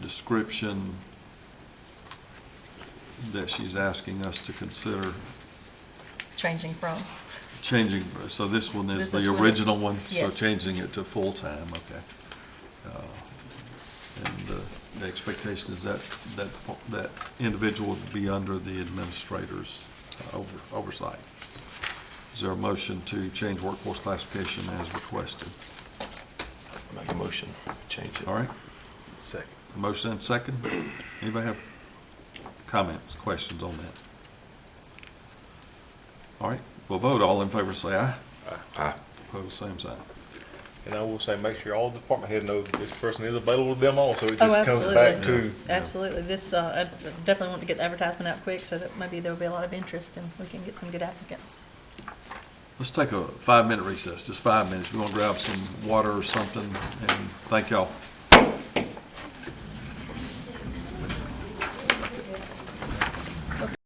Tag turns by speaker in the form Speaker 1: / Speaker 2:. Speaker 1: description that she's asking us to consider
Speaker 2: changing from.
Speaker 1: changing, so this one is
Speaker 2: This is
Speaker 1: the
Speaker 2: what it-
Speaker 1: original one?
Speaker 2: yes.
Speaker 1: So changing it to full-time, okay. Uh, And uh, the expectation is that, that, that individual would be under the administrator's uh, over- oversight. Is there a motion to change workforce classification as requested?
Speaker 3: Make a motion, change it.
Speaker 1: All right?
Speaker 3: Second.
Speaker 1: A Motion and second. Anybody have comments, questions on that? All right, we'll vote. All in favor say aye.
Speaker 3: Aye.
Speaker 1: Opposed, same sign.
Speaker 4: And I will say, make sure all department head knows that this person is available to them also. It
Speaker 2: Oh,
Speaker 4: just comes back
Speaker 1: absolutely.
Speaker 4: to,
Speaker 1: Yeah.
Speaker 2: Absolutely, this, uh, I definitely want to get the advertisement out quick so that maybe there'll be a lot of interest and we can get some good applicants.
Speaker 1: Let's take a five-minute recess, just five minutes. We want to grab some water or something, and thank y'all.